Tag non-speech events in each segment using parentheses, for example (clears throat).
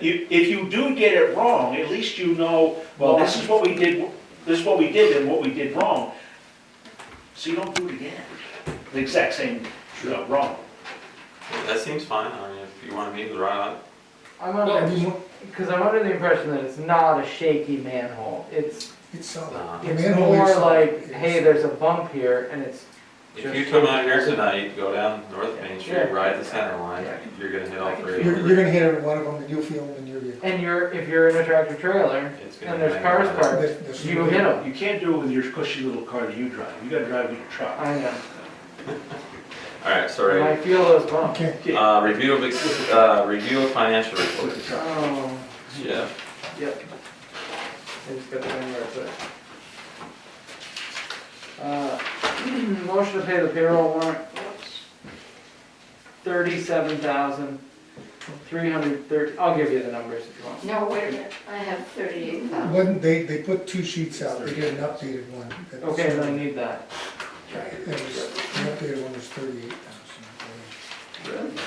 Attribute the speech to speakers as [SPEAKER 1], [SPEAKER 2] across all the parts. [SPEAKER 1] You, if you do get it wrong, at least you know, well, this is what we did, this is what we did and what we did wrong. So you don't do it again, the exact same, you know, wrong.
[SPEAKER 2] That seems fine, I mean, if you wanna meet with Rod,
[SPEAKER 3] I'm under, because I'm under the impression that it's not a shaky manhole. It's,
[SPEAKER 4] It's solid.
[SPEAKER 2] uh,
[SPEAKER 4] The
[SPEAKER 3] it's
[SPEAKER 4] manhole is
[SPEAKER 3] more
[SPEAKER 4] solid.
[SPEAKER 3] like, hey, there's a bump here and it's,
[SPEAKER 2] if you come out here tonight, go down North Main Street, ride the center line, you're gonna hit all three.
[SPEAKER 4] You're, you're gonna hit every one of them, and you'll feel them in your vehicle.
[SPEAKER 3] and you're, if you're in a tractor trailer,
[SPEAKER 2] It's gonna
[SPEAKER 3] and there's
[SPEAKER 2] hang
[SPEAKER 3] cars
[SPEAKER 2] on.
[SPEAKER 3] parked,
[SPEAKER 4] There's- there's-
[SPEAKER 3] you hit them.
[SPEAKER 1] You can't do it with your cushy little car that you drive, you gotta drive with your truck.
[SPEAKER 3] I know,
[SPEAKER 2] Alright,
[SPEAKER 3] and I
[SPEAKER 2] sorry,
[SPEAKER 3] feel those bumps.
[SPEAKER 4] Okay,
[SPEAKER 2] uh, review of, ex- uh, review of financial
[SPEAKER 1] With the
[SPEAKER 2] reports,
[SPEAKER 1] truck.
[SPEAKER 3] Oh,
[SPEAKER 2] Jeff.
[SPEAKER 3] yep. I just got the thing where I put it. Uh, (clears throat) Motion to pay the payroll warrant, thirty-seven thousand, three hundred thirty, I'll give you the numbers if you want.
[SPEAKER 5] No, wait a minute, I have thirty-eight thousand.
[SPEAKER 4] one, they, they put two sheets out, they did an updated one. that was-
[SPEAKER 3] Okay, then I need that.
[SPEAKER 4] It was, the updated one was thirty-eight thousand.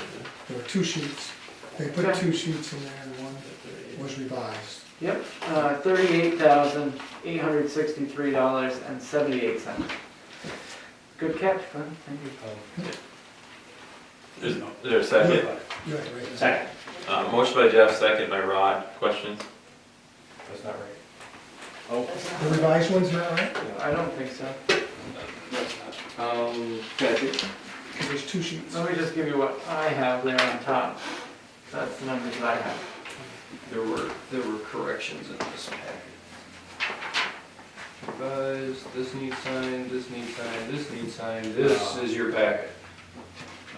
[SPEAKER 4] There were two sheets, they put
[SPEAKER 3] Okay.
[SPEAKER 4] two sheets in there, and one was revised.
[SPEAKER 3] Yep, uh, thirty-eight thousand, eight hundred sixty-three dollars and seventy-eight cents. Good catch, Glenn, thank you.
[SPEAKER 2] Is there a second?
[SPEAKER 4] You had it right.
[SPEAKER 1] Second,
[SPEAKER 2] Uh, motion by Jeff, second by Rod, questions?
[SPEAKER 6] That's not right.
[SPEAKER 1] oh,
[SPEAKER 4] The revised one's not right,
[SPEAKER 3] I don't think so.
[SPEAKER 6] Um, Patrick?
[SPEAKER 4] there's two sheets.
[SPEAKER 3] Let me just give you what I have there on top. That's the numbers that I have.
[SPEAKER 6] There were, there were corrections in this packet. Revised, this needs signed, this needs signed, this needs signed, this is your packet.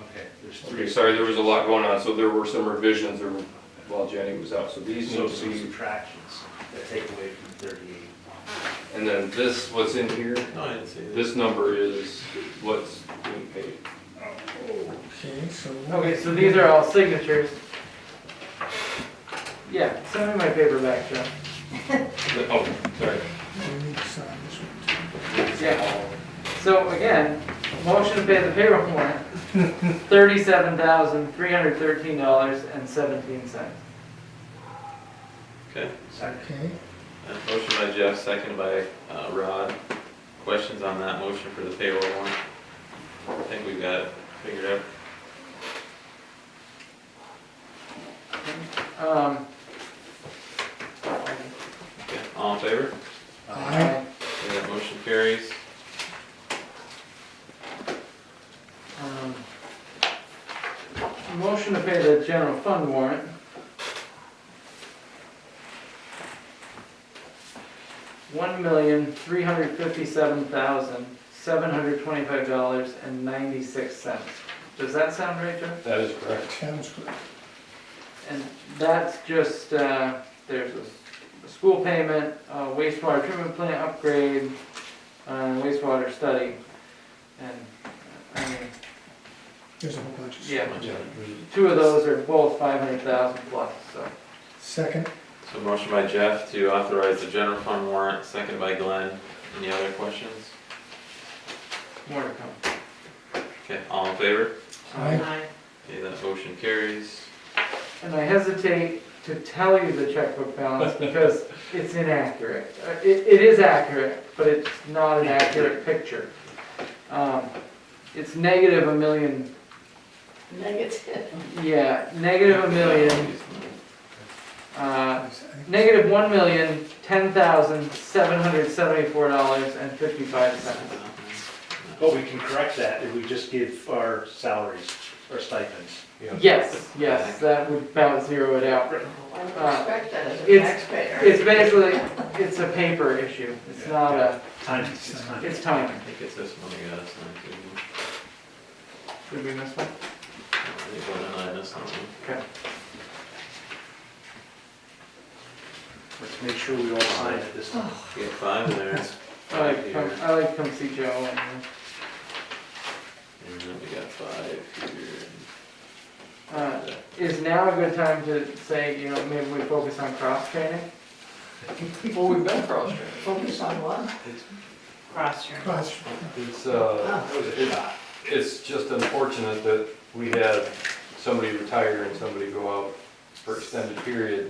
[SPEAKER 1] okay, there's
[SPEAKER 6] Ah. Okay,
[SPEAKER 1] three,
[SPEAKER 6] sorry, there was a lot going on, so there were some revisions there were- while Jenny was out, so these
[SPEAKER 1] so
[SPEAKER 6] need
[SPEAKER 1] some
[SPEAKER 6] to be,
[SPEAKER 1] subtractions that take away from thirty-eight.
[SPEAKER 6] and then this, what's in here,
[SPEAKER 2] No, I didn't see that.
[SPEAKER 6] this number is what's being paid.
[SPEAKER 4] Okay, so.
[SPEAKER 3] Okay, so these are all signatures. Yeah, send me my paper back, Joe.
[SPEAKER 6] Oh, sorry.
[SPEAKER 4] We need to sign this one. too.
[SPEAKER 3] Yeah. So again, motion to pay the payroll warrant, thirty-seven thousand, three hundred thirteen dollars and seventeen cents.
[SPEAKER 2] Okay,
[SPEAKER 1] Second,
[SPEAKER 4] Okay,
[SPEAKER 2] Uh, motion by Jeff, second by, uh, Rod, questions on that motion for the payroll warrant? I think we've got it figured out.
[SPEAKER 3] Um,
[SPEAKER 2] Okay, all in favor?
[SPEAKER 3] Uh,
[SPEAKER 4] aye,
[SPEAKER 2] Okay, that motion carries.
[SPEAKER 3] um, Motion to pay the general fund warrant. One million, three hundred fifty-seven thousand, seven hundred twenty-five dollars and ninety-six cents. Does that sound right, Joe?
[SPEAKER 6] That is correct.
[SPEAKER 4] sounds good.
[SPEAKER 3] And that's just, uh, there's a s- a school payment, uh, wastewater treatment plant upgrade, uh, wastewater study. And, I mean,
[SPEAKER 4] There's a whole bunch of.
[SPEAKER 3] yeah, two of those are both five hundred thousand plus, so.
[SPEAKER 4] Second,
[SPEAKER 2] So motion by Jeff to authorize the general fund warrant, second by Glenn. Any other questions?
[SPEAKER 3] More to come.
[SPEAKER 2] Okay, all in favor?
[SPEAKER 4] aye,
[SPEAKER 2] Okay, that motion carries.
[SPEAKER 3] And I hesitate to tell you the checkbook balance because it's inaccurate. Uh, It, it is accurate, but it's not an accurate picture. Um, It's negative a million,
[SPEAKER 5] Negative.
[SPEAKER 3] yeah, negative a million, uh, Negative one million, ten thousand, seven hundred seventy-four dollars and fifty-five cents.
[SPEAKER 6] Oh,
[SPEAKER 1] but we can correct that if we just give our salaries, our stipends.
[SPEAKER 3] Yes, yes, that would about zero it out.
[SPEAKER 5] I would expect that as a
[SPEAKER 3] It's-
[SPEAKER 5] taxpayer.
[SPEAKER 3] It's basically, it's a paper issue, it's not a,
[SPEAKER 1] Time, it's time.
[SPEAKER 3] it's
[SPEAKER 2] I
[SPEAKER 3] timing.
[SPEAKER 2] think it's this one we gotta sign too.
[SPEAKER 3] Did we miss one?
[SPEAKER 2] I think Glenn and I missed something.
[SPEAKER 3] Okay.
[SPEAKER 1] Let's make sure we all sign it this time.
[SPEAKER 2] We got five in there.
[SPEAKER 3] I like, come- I like come see Joe and,
[SPEAKER 2] And then we got five here.
[SPEAKER 3] uh, is now a good time to say, you know, maybe we focus on cross-training?
[SPEAKER 6] Well, we've been cross-trained.
[SPEAKER 5] Focus on what? Cross your.
[SPEAKER 4] cross,
[SPEAKER 6] It's, uh, it- it's just unfortunate that we had somebody retire and somebody go out for extended period,